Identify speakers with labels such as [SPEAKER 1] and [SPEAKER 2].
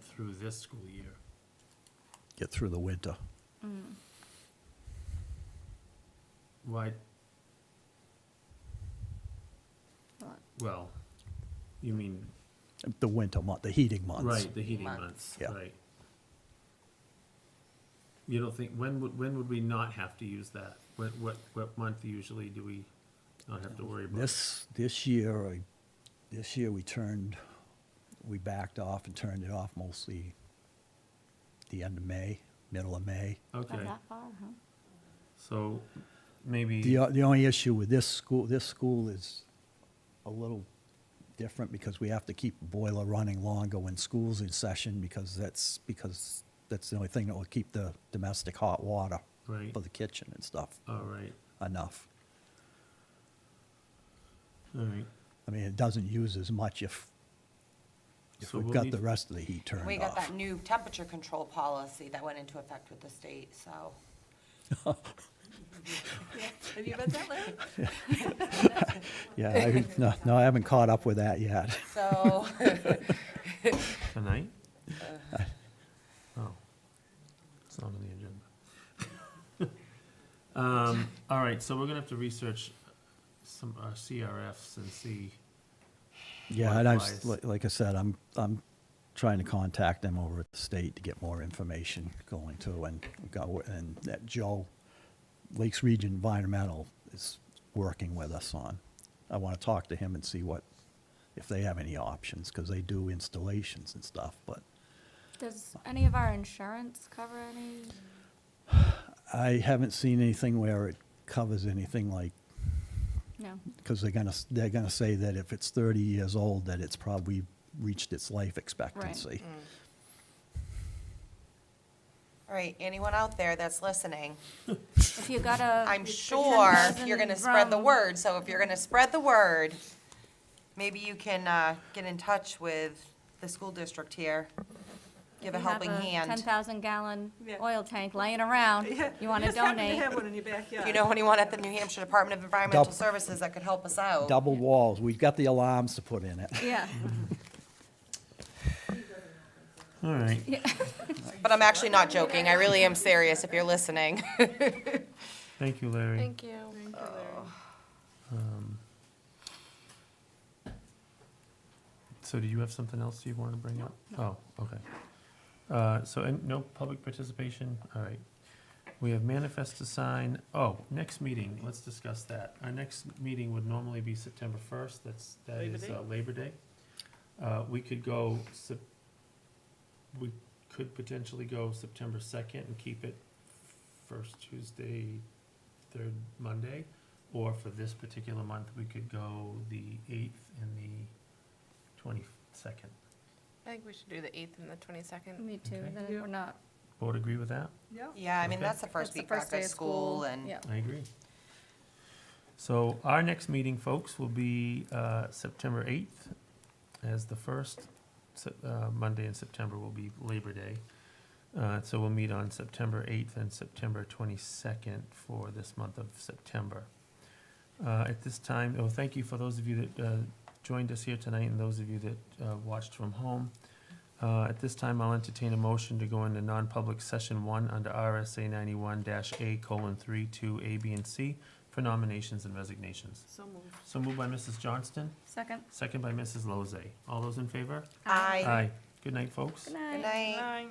[SPEAKER 1] through this school year.
[SPEAKER 2] get through the winter.
[SPEAKER 3] Mm,
[SPEAKER 1] Why,
[SPEAKER 3] Well,
[SPEAKER 1] well, you mean,
[SPEAKER 2] The winter month, the heating months.
[SPEAKER 1] right, the heating months,
[SPEAKER 3] Months.
[SPEAKER 2] Yeah.
[SPEAKER 1] right. You don't think, when would, when would we not have to use that? What, what, what month usually do we not have to worry about?
[SPEAKER 2] This, this year, I, this year we turned, we backed off and turned it off mostly the end of May, middle of May.
[SPEAKER 3] Not
[SPEAKER 1] Okay,
[SPEAKER 3] that far, huh?
[SPEAKER 1] so maybe.
[SPEAKER 2] The, o- the only issue with this school, this school is a little different because we have to keep the boiler running longer when school's in session because that's, because that's the only thing that will keep the domestic hot water
[SPEAKER 1] Right.
[SPEAKER 2] for the kitchen and stuff
[SPEAKER 1] All right,
[SPEAKER 2] enough.
[SPEAKER 1] all right.
[SPEAKER 2] I mean, it doesn't use as much if, if
[SPEAKER 1] So
[SPEAKER 2] we've
[SPEAKER 1] we'll
[SPEAKER 2] got
[SPEAKER 1] need-
[SPEAKER 2] the rest of the heat turned off.
[SPEAKER 4] We got that new temperature control policy that went into effect with the state, so.
[SPEAKER 3] Have you read that, Larry?
[SPEAKER 2] Yeah, I, haven't- no, no, I haven't caught up with that yet.
[SPEAKER 4] So,
[SPEAKER 1] Tonight? Oh, it's not on the agenda. Um, all right, so we're gonna have to research some, uh, our CRFs and see,
[SPEAKER 2] Yeah, and I'm, s-
[SPEAKER 1] Likewise.
[SPEAKER 2] like like I said, I'm, I'm trying to contact them over at the state to get more information going to and go, and that Joe, Lakes Region Environmental is working with us on. I want to talk to him and see what, if they have any options, because they do installations and stuff, but
[SPEAKER 3] Does any of our insurance cover any?
[SPEAKER 2] I haven't seen anything where it covers anything like
[SPEAKER 3] No.
[SPEAKER 2] because they're gonna, they're gonna say that if it's thirty years old, that it's probably reached its life expectancy.
[SPEAKER 4] all right, anyone out there that's listening,
[SPEAKER 3] If you got a.
[SPEAKER 4] I'm
[SPEAKER 3] pretend
[SPEAKER 4] sure
[SPEAKER 3] dozen
[SPEAKER 4] you're gonna spread the
[SPEAKER 3] rum-
[SPEAKER 4] word, so if you're gonna spread the word, maybe you can, uh, get in touch with the school district here. Give a
[SPEAKER 3] you have
[SPEAKER 4] helping
[SPEAKER 3] a Ten
[SPEAKER 4] hand.
[SPEAKER 3] thousand gallon
[SPEAKER 5] Yeah.
[SPEAKER 3] oil tank laying around, you wanna donate,
[SPEAKER 5] You have one in your backyard.
[SPEAKER 4] If you know anyone at the New Hampshire Department of Environmental
[SPEAKER 2] Double.
[SPEAKER 4] Services that could help us out.
[SPEAKER 2] Double walls, we've got the alarms to put in it.
[SPEAKER 3] yeah.
[SPEAKER 1] all right.
[SPEAKER 4] But I'm actually not joking, I really am serious if you're listening.
[SPEAKER 1] Thank you, Larry.
[SPEAKER 3] you.
[SPEAKER 1] Um, So do you have something else you wanna bring up? Oh, okay. Uh, so, and no public participation, all right. We have manifest to sign, oh, next meeting, let's discuss that. Our next meeting would normally be September first, that's, that
[SPEAKER 5] Labor
[SPEAKER 1] is
[SPEAKER 5] Day?
[SPEAKER 1] uh, Labor Day. Uh, we could go Sep- we could potentially go September second and keep it first Tuesday, third Monday. Or for this particular month, we could go the eighth and the twenty-second.
[SPEAKER 6] I think we should do the 8th and the 22nd.
[SPEAKER 3] Me too,
[SPEAKER 1] Okay.
[SPEAKER 3] then we're not.
[SPEAKER 1] Board agree with that?
[SPEAKER 5] Yeah.
[SPEAKER 4] Yeah, I mean,
[SPEAKER 1] Okay.
[SPEAKER 4] that's the first
[SPEAKER 3] that's the
[SPEAKER 4] week back
[SPEAKER 3] day
[SPEAKER 4] of school and
[SPEAKER 3] Yeah.
[SPEAKER 1] I agree. So our next meeting, folks, will be uh, September 8th, as the first Sep- uh, Monday in September will be Labor Day. Uh, So we'll meet on September 8th and September 22nd for this month of September. Uh, At this time, oh, thank you for those of you that uh, joined us here tonight and those of you that uh, watched from home. Uh, At this time, I'll entertain a motion to go into non-public session one under RSA ninety-one dash A colon three two A, B, and C for nominations and resignations.
[SPEAKER 5] So moved.
[SPEAKER 1] So moved by Mrs. Johnston,
[SPEAKER 3] Second.
[SPEAKER 1] second by Mrs. Lozay. All those in favor?
[SPEAKER 4] I.
[SPEAKER 1] Good night, folks.
[SPEAKER 3] Good night.
[SPEAKER 4] Good night.
[SPEAKER 5] Nine.